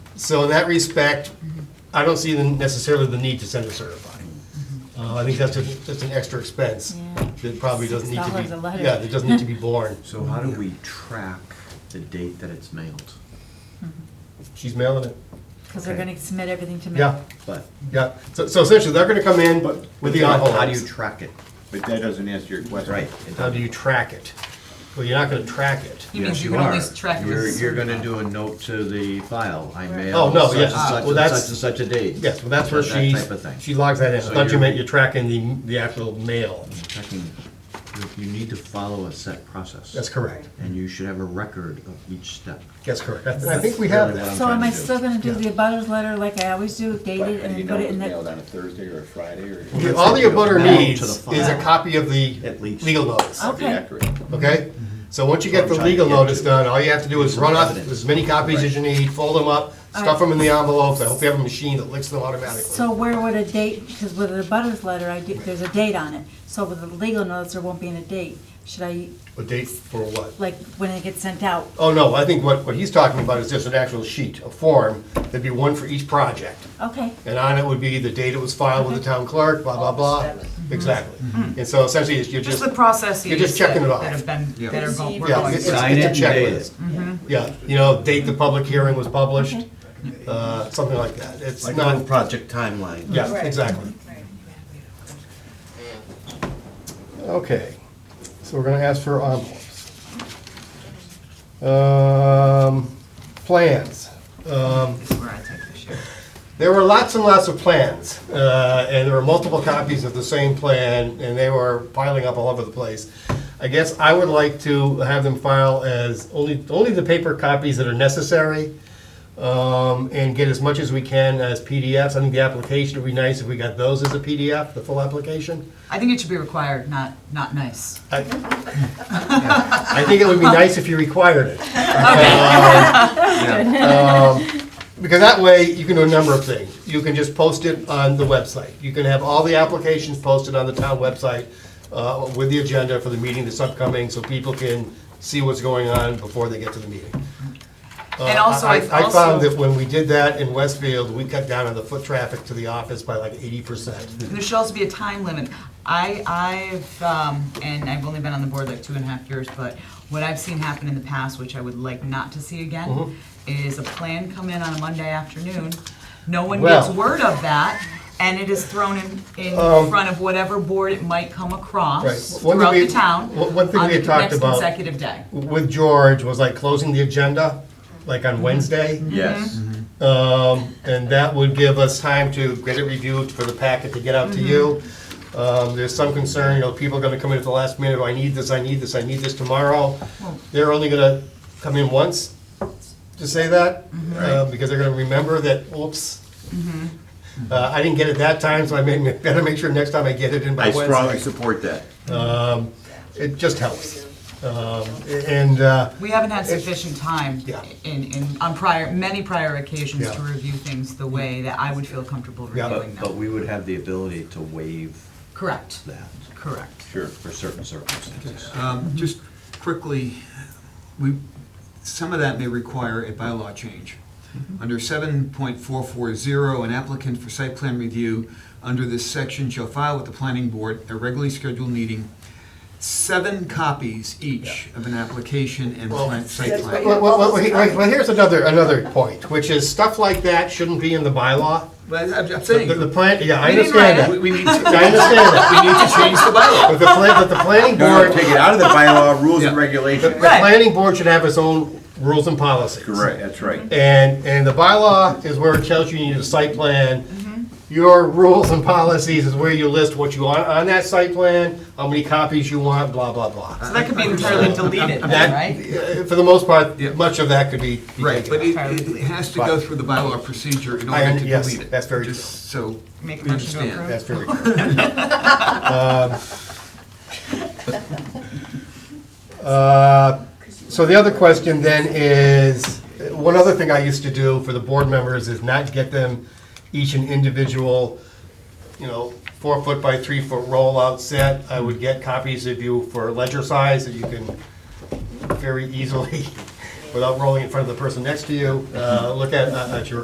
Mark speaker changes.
Speaker 1: So in that respect, I don't see the- necessarily the need to send a certified. Uh, I think that's just, just an extra expense
Speaker 2: Mm-hmm. Yeah.
Speaker 1: that probably doesn't need to be,
Speaker 2: $6 a letter.
Speaker 1: yeah, that doesn't need to be borne.
Speaker 3: So how do we track the date that it's mailed?
Speaker 1: She's mailing it.
Speaker 2: Because they're
Speaker 3: Okay.
Speaker 2: gonna submit everything to me.
Speaker 1: Yeah,
Speaker 3: But,
Speaker 1: yeah. So, so essentially, they're gonna come in
Speaker 3: but.
Speaker 1: with the on hold.
Speaker 3: How do you track it?
Speaker 4: But that doesn't answer your question.
Speaker 3: Right.
Speaker 1: How do you track it? Well, you're not gonna track it.
Speaker 5: He means
Speaker 3: Yes,
Speaker 5: you
Speaker 3: you
Speaker 5: can
Speaker 3: are.
Speaker 5: always track it
Speaker 3: You're,
Speaker 5: as
Speaker 3: you're gonna
Speaker 5: certified.
Speaker 3: do a note to the file, I
Speaker 1: Oh,
Speaker 3: mailed
Speaker 1: no,
Speaker 3: such
Speaker 1: yeah,
Speaker 3: and
Speaker 1: ah,
Speaker 3: such
Speaker 1: well,
Speaker 3: and
Speaker 1: that's-
Speaker 3: such and such a date.
Speaker 1: Yes, well, that's where
Speaker 3: That- that
Speaker 1: she,
Speaker 3: type of thing.
Speaker 1: she logs that in. I
Speaker 3: So
Speaker 1: thought you
Speaker 3: you're-
Speaker 1: meant you're tracking the, the actual mail.
Speaker 3: Checking, you need to follow a set process.
Speaker 1: That's correct.
Speaker 3: And you should have a record of each step.
Speaker 1: That's correct. I I think we have
Speaker 3: Really
Speaker 1: that.
Speaker 3: what I'm
Speaker 2: So
Speaker 3: trying
Speaker 2: am
Speaker 3: to
Speaker 2: I
Speaker 3: do.
Speaker 2: still gonna do the abutters letter like I always do, date
Speaker 4: But
Speaker 2: it and
Speaker 4: you
Speaker 2: then
Speaker 4: know,
Speaker 2: put
Speaker 4: it
Speaker 2: it
Speaker 4: was
Speaker 2: in
Speaker 4: mailed
Speaker 2: the?
Speaker 4: on a Thursday or a Friday or.
Speaker 1: The-
Speaker 3: That's
Speaker 1: All the
Speaker 3: what you
Speaker 1: abutter
Speaker 3: mail to
Speaker 1: needs
Speaker 3: the
Speaker 1: is a
Speaker 3: file.
Speaker 1: copy of the
Speaker 3: At least.
Speaker 1: legal notice,
Speaker 2: Okay.
Speaker 4: Accurate.
Speaker 1: okay? So once you get the
Speaker 3: That's what Mm-hmm. I'm
Speaker 1: legal
Speaker 3: trying to get
Speaker 1: notice
Speaker 3: to.
Speaker 1: done, all you have to do is
Speaker 3: Some
Speaker 1: run up
Speaker 3: evidence.
Speaker 1: as many copies as you need, fold them up, stuff
Speaker 2: Alright.
Speaker 1: them in the envelopes. I hope you have a machine that licks them
Speaker 2: So
Speaker 1: automatically.
Speaker 2: where would a date, because with the abutters letter, I do, there's a date on it. So with the legal notice, there won't be any date. Should I,
Speaker 1: A date for what?
Speaker 2: like, when it gets sent out?
Speaker 1: Oh, no, I think what, what he's talking about is just an actual sheet, a form, that'd be one for each project.
Speaker 2: Okay,
Speaker 1: And on it would be the date it was filed with the town clerk, blah, blah, blah.
Speaker 3: Mm-hmm.
Speaker 1: Exactly. And so essentially, it's- you're
Speaker 5: Just
Speaker 1: just,
Speaker 5: the processes.
Speaker 1: You're just checking
Speaker 5: that-
Speaker 1: it off.
Speaker 5: That have been, that are going, we're
Speaker 1: Yeah,
Speaker 5: going
Speaker 1: it's-
Speaker 5: through.
Speaker 3: Sign it Mm-hmm. and
Speaker 1: it's a
Speaker 3: date it.
Speaker 1: checklist. yeah, you know, date the public hearing was published,
Speaker 3: Mm-hmm.
Speaker 1: uh, something like that. It's
Speaker 3: Like a
Speaker 1: not,
Speaker 3: little project timeline.
Speaker 1: Yeah, exactly. Okay, so we're gonna ask for envelopes. Um, plans. Um,
Speaker 5: This is where I take the shit.
Speaker 1: there were lots and lots of plans, uh, and there were multiple copies of the same plan, and they were piling up all over the place. I guess I would like to have them file as only, only the paper copies that are necessary, um, and get as much as we can as PDFs. I think the application would be nice if we got those as a PDF, the full application.
Speaker 5: I think it should be required, not, not nice.
Speaker 1: I think it would be nice if you required it. Um, um, Because that way, you can do a number of things. You can just post it on the website. You can have all the applications posted on the town website uh, with the agenda for the meeting that's upcoming, so people can see what's going on before they get to the meeting. Uh,
Speaker 5: And also, I-
Speaker 1: I found
Speaker 5: also-
Speaker 1: that when we did that in Westfield, we cut down on the foot traffic to the office by like eighty percent.
Speaker 5: And there should also be a time limit. I, I've, um, and I've only been on the board like two and a half years, but what I've seen happen in the past, which I would like not to see again,
Speaker 1: Mm-hmm.
Speaker 5: is a plan come in on a Monday afternoon, no one gets
Speaker 1: Well-
Speaker 5: word of that, and it is thrown in, in front of whatever board it might come
Speaker 1: Um, Right.
Speaker 5: across
Speaker 1: One thing
Speaker 5: throughout
Speaker 1: we-
Speaker 5: the town
Speaker 1: one- one thing
Speaker 5: on
Speaker 1: we
Speaker 5: the
Speaker 1: had talked
Speaker 5: next
Speaker 1: about-
Speaker 5: consecutive day.
Speaker 1: With George was like closing the agenda, like on Wednesday.
Speaker 3: Yes.
Speaker 2: Mm-hmm.
Speaker 1: Um, and that would give us time to get it reviewed for the packet to get out to you. Um, there's some concern, you know, people are gonna come in at the last minute, oh, I need this, I need this, I need this tomorrow. They're only gonna come in once to say that, uh, because they're gonna remember that, oops. Uh, I didn't get it that time, so I made, better make sure next time I get it in by
Speaker 4: I
Speaker 1: Wednesday.
Speaker 4: strongly support that.
Speaker 1: It just helps. Um, and, uh,
Speaker 5: We haven't had
Speaker 1: It's-
Speaker 5: sufficient time
Speaker 1: Yeah.
Speaker 5: in, in, on prior, many prior occasions
Speaker 1: Yeah.
Speaker 5: to review things the way that I would feel comfortable
Speaker 1: Yeah.
Speaker 5: reviewing
Speaker 3: But, but
Speaker 5: them.
Speaker 3: we would have the ability to waive
Speaker 5: Correct,
Speaker 3: that
Speaker 5: correct.
Speaker 4: Sure.
Speaker 3: for certain circumstances.
Speaker 1: Mm-hmm.
Speaker 6: Um, Just quickly, we, some of that may require a bylaw change.
Speaker 1: Mm-hmm.
Speaker 6: Under seven point four four zero, an applicant for site plan review under this section shall file with the planning board a regularly scheduled meeting, seven copies each of an application and plan- site plan.
Speaker 1: Well, well, well, he- well, here's another, another point, which is stuff like that shouldn't be in the bylaw.
Speaker 6: Well, I'm I'm
Speaker 1: The,
Speaker 6: saying, we
Speaker 1: the plan, yeah, I
Speaker 5: We didn't
Speaker 1: understand
Speaker 5: write
Speaker 1: that.
Speaker 6: it. We- we need
Speaker 1: I
Speaker 6: to-
Speaker 1: understand that.
Speaker 6: need to change the bylaw.
Speaker 1: But the plan, but the planning
Speaker 4: No, no,
Speaker 1: board,
Speaker 4: take it out of the bylaw, rules and
Speaker 6: Yeah.
Speaker 1: the
Speaker 4: regulations.
Speaker 5: Right.
Speaker 1: planning board should have its own rules and policies.
Speaker 4: Correct, that's right.
Speaker 1: And, and the bylaw is where it tells you you need a site plan.
Speaker 5: Mm-hmm.
Speaker 1: Your rules and policies is where you list what you want on that site plan, how many copies you want, blah, blah, blah.
Speaker 5: So that could be entirely deleted then,
Speaker 1: That-
Speaker 5: Uh, right?
Speaker 1: uh, For the most part,
Speaker 6: Yeah.
Speaker 1: much of that could be. be
Speaker 6: Right,
Speaker 1: taken
Speaker 6: but
Speaker 1: out.
Speaker 6: it, it it has to go through the bylaw procedure in
Speaker 1: I
Speaker 6: order to
Speaker 1: un- yes,
Speaker 6: delete it.
Speaker 1: that's very
Speaker 6: Just So.
Speaker 5: Make a
Speaker 6: we
Speaker 5: motion to
Speaker 6: understand.
Speaker 5: approve?
Speaker 1: That's very correct. Um, uh, So the other question then is, one other thing I used to do for the board members is not get them each an individual, you know, four foot by three foot rollout set. I would get copies of you for ledger size that you can very easily, without rolling in front of the person next to you, uh, look at, at your